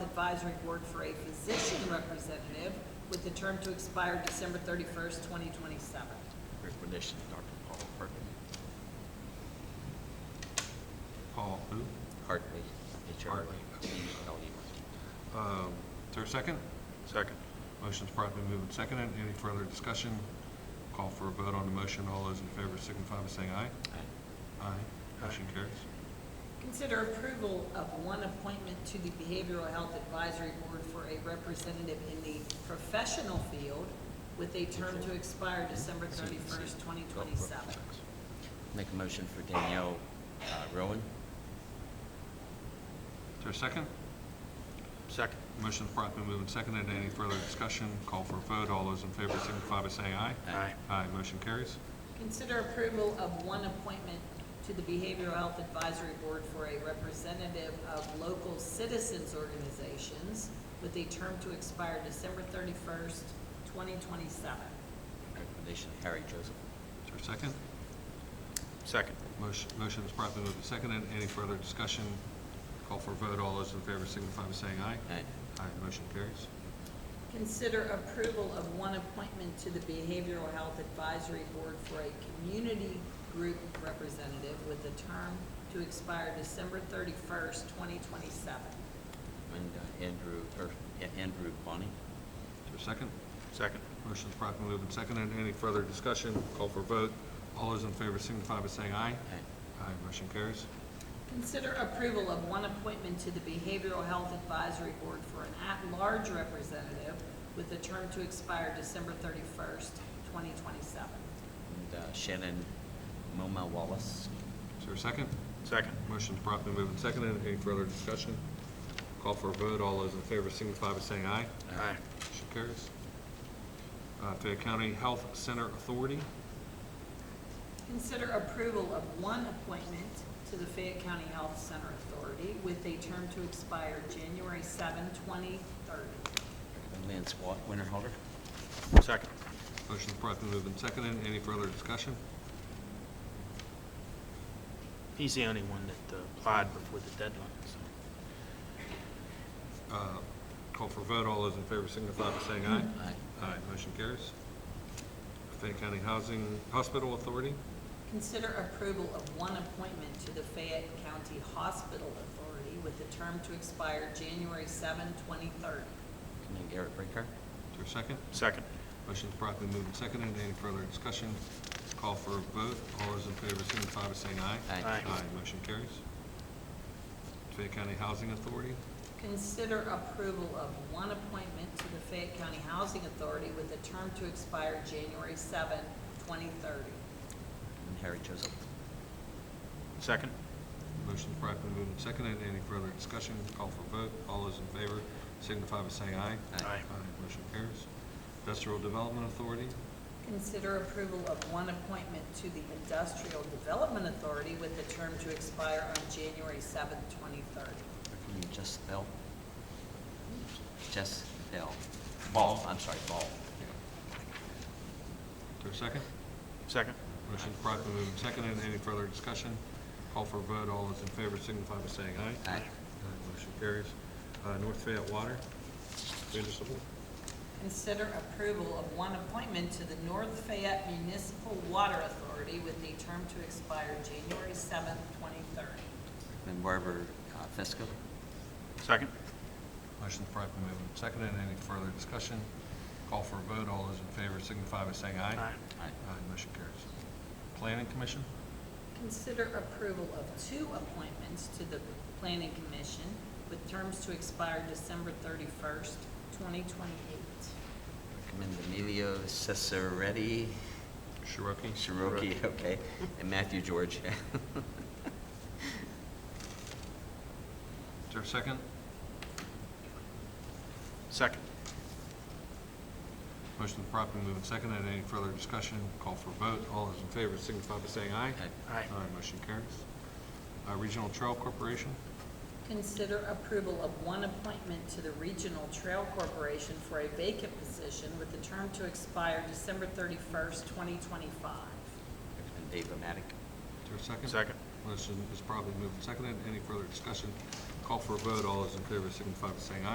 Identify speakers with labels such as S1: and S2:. S1: Advisory Board for a physician representative with the term to expire December thirty-first, twenty twenty-seven.
S2: Recommendation, Dr. Paul Hartman.
S3: Paul, who?
S2: Hartman, H-R-T-M-A-N.
S3: Hartman. Um, Is there a second?
S4: Second.
S3: Motion's promptly moved and seconded. Any further discussion? Call for a vote on the motion. All those in favor signify by saying aye. Aye. Motion carries.
S1: Consider approval of one appointment to the Behavioral Health Advisory Board for a representative in the professional field with a term to expire December thirty-first, twenty twenty-seven.
S2: Make a motion for Danielle uh, Rowan.
S3: Is there a second?
S4: Second.
S3: Motion's promptly moved and seconded. Any further discussion? Call for a vote. All those in favor signify by saying aye.
S2: Aye.
S3: Aye. Motion carries.
S1: Consider approval of one appointment to the Behavioral Health Advisory Board for a representative of local citizens organizations with a term to expire December thirty-first, twenty twenty-seven.
S2: Recommendation, Harry Joseph.
S3: Is there a second?
S4: Second.
S3: Motion motion is promptly moved and seconded. Any further discussion? Call for a vote. All those in favor signify by saying aye.
S2: Aye.
S3: Aye. Motion carries.
S1: Consider approval of one appointment to the Behavioral Health Advisory Board for a community group representative with a term to expire December thirty-first, twenty twenty-seven.
S2: And uh, Andrew, or A- Andrew Bonney.
S3: Is there a second?
S4: Second.
S3: Motion's promptly moved and seconded. Any further discussion? Call for vote. All those in favor signify by saying aye.
S2: Aye.
S3: Aye, motion carries.
S1: Consider approval of one appointment to the Behavioral Health Advisory Board for an at-large representative with a term to expire December thirty-first, twenty twenty-seven.
S2: And uh, Shannon Moma Wallace.
S3: Is there a second?
S4: Second.
S3: Motion's promptly moved and seconded. Any further discussion? Call for a vote. All those in favor signify by saying aye.
S4: Aye.
S3: Motion carries. Uh, Fayette County Health Center Authority,
S1: Consider approval of one appointment to the Fayette County Health Center Authority with a term to expire January 7, twenty thirty.
S2: Lance Wa- Winterhalter.
S4: Second.
S3: motion's promptly moved and seconded. Any further discussion?
S5: He's the only one that uh, applied before the deadline, so.
S3: Uh, Call for vote. All those in favor signify by saying aye.
S2: Aye.
S3: Aye, motion carries. Fayette County Housing Hospital Authority,
S1: Consider approval of one appointment to the Fayette County Hospital Authority with a term to expire January 7, twenty thirty.
S2: And then Garrett Breaker.
S3: is there a second?
S4: Second.
S3: Motion's promptly moved and seconded. Any further discussion? Call for a vote. All those in favor signify by saying aye.
S2: Aye.
S5: Aye.
S3: motion carries. Fayette County Housing Authority,
S1: Consider approval of one appointment to the Fayette County Housing Authority with a term to expire January 7, 2030.
S2: And Harry Joseph.
S4: Second.
S3: motion's promptly moved and seconded. Any further discussion? Call for vote. All those in favor signify by saying aye.
S2: Aye.
S3: Aye, motion carries. Industrial Development Authority,
S1: Consider approval of one appointment to the Industrial Development Authority with a term to expire on January 7, 2030.
S2: Recommend Jess Bell. Jess Bell. Ball, I'm sorry, Ball.
S3: is there a second?
S4: Second.
S3: Motion's promptly moved and seconded. Any further discussion? Call for vote. All those in favor signify by saying aye.
S2: Aye.
S3: Aye, Motion carries. Uh, North Fayette Water, municipal.
S1: Consider approval of one appointment to the North Fayette Municipal Water Authority with a term to expire January 7, 2030.
S2: And Barbara uh, Fesco.
S4: Second.
S3: Motion's promptly moved and seconded. Any further discussion? Call for a vote. All those in favor signify by saying aye.
S5: Aye.
S2: Aye.
S3: Aye, motion carries. Planning Commission,
S1: Consider approval of two appointments to the Planning Commission with terms to expire December thirty-first, twenty twenty-eight.
S2: Recommend Emilio Cesaretti.
S3: Cherokee.
S2: Cherokee, okay. And Matthew George.
S3: Is there a second?
S4: Second.
S3: Motion's promptly moved and seconded. Any further discussion? Call for a vote. All those in favor signify by saying aye.
S2: Aye.
S5: Aye.
S3: Aye, motion carries. Uh, Regional Trail Corporation,
S1: Consider approval of one appointment to the Regional Trail Corporation for a vacant position with the term to expire December thirty-first, twenty twenty-five.
S2: Recommend Dave Matic.
S3: Is there a second?
S4: Second.
S3: Motion is probably moved and seconded. Any further discussion? Call for a vote. All those in favor signify by saying aye.